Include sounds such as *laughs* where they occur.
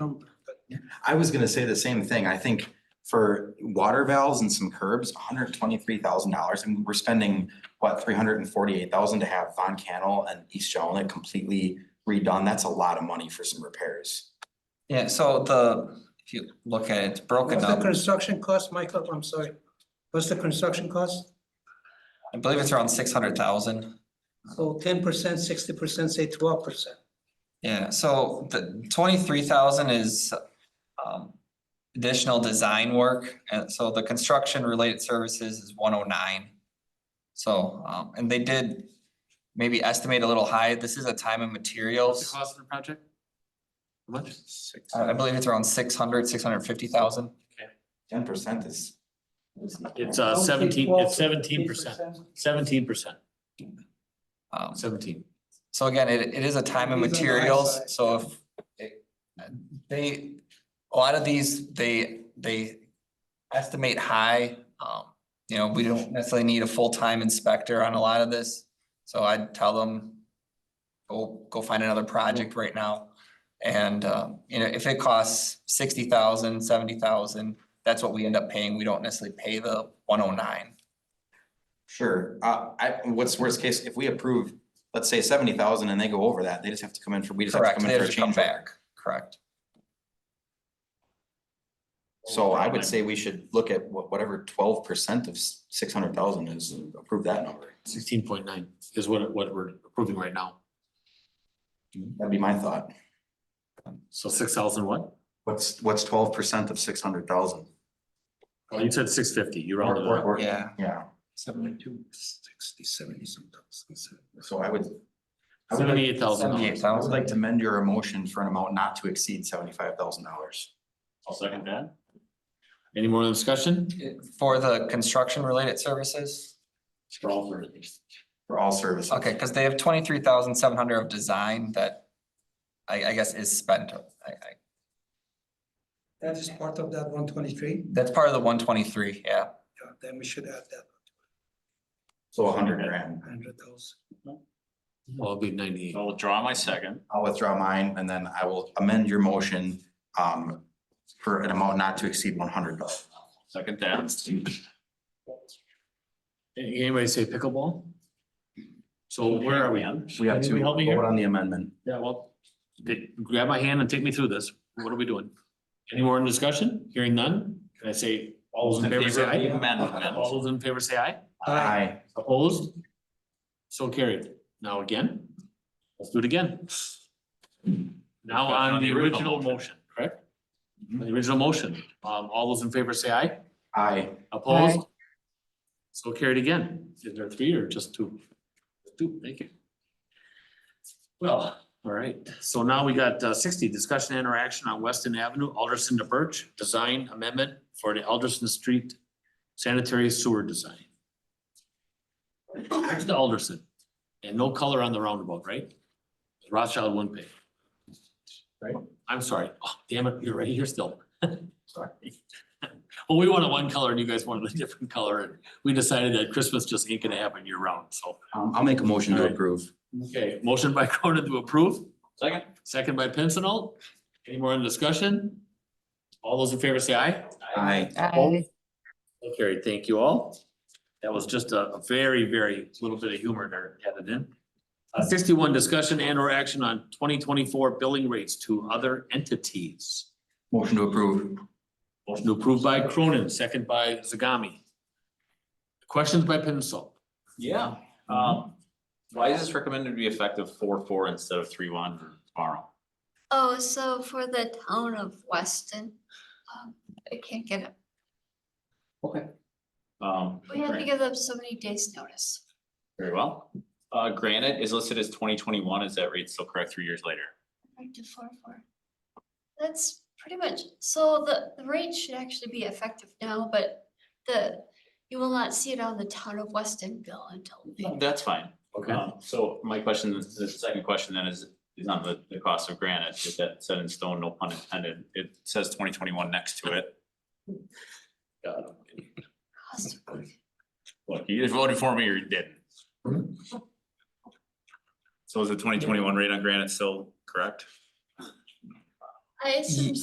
Um, I was gonna say the same thing. I think for water valves and some curbs, hundred and twenty-three thousand dollars, and we're spending, what, three hundred and forty-eight thousand to have Von Cannell and East Jolene completely redone. That's a lot of money for some repairs. Yeah, so the, if you look at it, it's broken What's the up, construction cost, Michael? I'm sorry. What's the construction cost? I believe it's around six hundred thousand. So ten percent, sixty percent, say twelve percent. Yeah, so the twenty-three thousand is um additional design work, and so the construction related services is one oh nine. So um and they did maybe estimate a little high, this is a time and The Uh-huh. materials, cost of the project? How much? I I believe it's around six hundred, six hundred fifty thousand. Ten percent is, It's uh seventeen, it's seventeen percent, seventeen percent, Um seventeen. so again, it it is a time and These are the high materials, side. so if it- they, a lot of these, they they estimate high. Um, you know, we don't necessarily need a full-time inspector on a lot of this, so I'd tell them. Go go find another project right now. And um, you know, if it costs sixty thousand, seventy thousand, that's what we end up paying. We don't necessarily pay the one oh nine. sure, uh, I, what's worst case, if we approve, let's say seventy thousand and they go over that, they just have to come in for, we just have to Correct, come they in for a have to come change. order. back, correct. So I would say we should look at wha- whatever twelve percent of six hundred thousand is, approve that number. Sixteen point nine is what what we're approving right now. That'd be my thought. So six thousand what? What's, what's twelve percent of six hundred thousand? Oh, you said six fifty, you rounded it up. Yeah. Yeah, Seventy-two, sixty, seventy sometimes. so I would. I would like- Seventy-eight thousand. Seventy-eight I thousand. would like to amend your motion for an amount not to exceed seventy-five thousand dollars. I'll second that. Any more discussion? For the construction related services? For all three. For all services. Okay, because they have twenty-three thousand seven hundred of design that I, I guess is spent. I, I, That is part of that one twenty-three, that's part of the one twenty-three, yeah. then we should add that So a hundred grand. hundred thousand. Well, it'll be ninety-eight. I'll withdraw my second. I'll withdraw mine and then I will amend your motion um for an amount not to exceed one hundred thousand. Second that. Anybody say pickleball? So where are we on? We have to Anybody help me here? vote on the amendment. Yeah, well, take- grab my hand and take me through this. What are we doing? Any more in discussion? Hearing none? Can I say, all those in favor say Favor of the aye? amendment. All those in favor say aye? Aye. Opposed? So carried. Now again, let's do it again. Now on the original motion, correct? The original motion. Um, all those in favor say aye? Aye. Opposed? So carried again. Is there three or just two? Two, thank you. Well, all right, so now we got uh, sixty, discussion and interaction on Weston Avenue, Alderson to Birch, design amendment for the Alderson Street sanitary sewer design. Back to Alderson, and no color on the roundabout, right? Rothschild wouldn't pay. Right. I'm sorry, oh, damn it, you're right here still. Sorry. Well, we wanted one color and you guys wanted a different color. and We decided that Christmas just ain't gonna happen year round, so. Um, I'll make a motion to Alright. approve. Okay, motion by *laughs* Cronin to approve, Second. second by Pincinel. Any more in discussion? All those in favor say aye. Aye. Aye. Carried, thank you all. That was just a a very, very little bit of humor there added in. Uh, Sixty-one, discussion and or action on twenty twenty-four billing rates to other entities. Motion to approve. Motion approved by Cronin, second by Zagami. Questions by Pincinel? Yeah. Um, why is this recommended to be effective four, four instead of three, one tomorrow? Oh, so for the town of Weston, um, I can't get it. Um, We have to Gran- give them so many days' notice. very well. Uh, Granite is listed as twenty twenty-one. Is that rate still correct three years later? Right to four, four. That's pretty much, so the, the rate should actually be effective now, but the, you will not see it on the town of Weston bill until. May. That's fine. Okay. Um, So my question, the second question then is, is on the, the cost of granite, is that set in stone, no pun intended? It says twenty twenty-one next to it. God, Cost of living. Look, you either voted for me or you didn't. So is the twenty twenty-one rate on granite still correct? I assume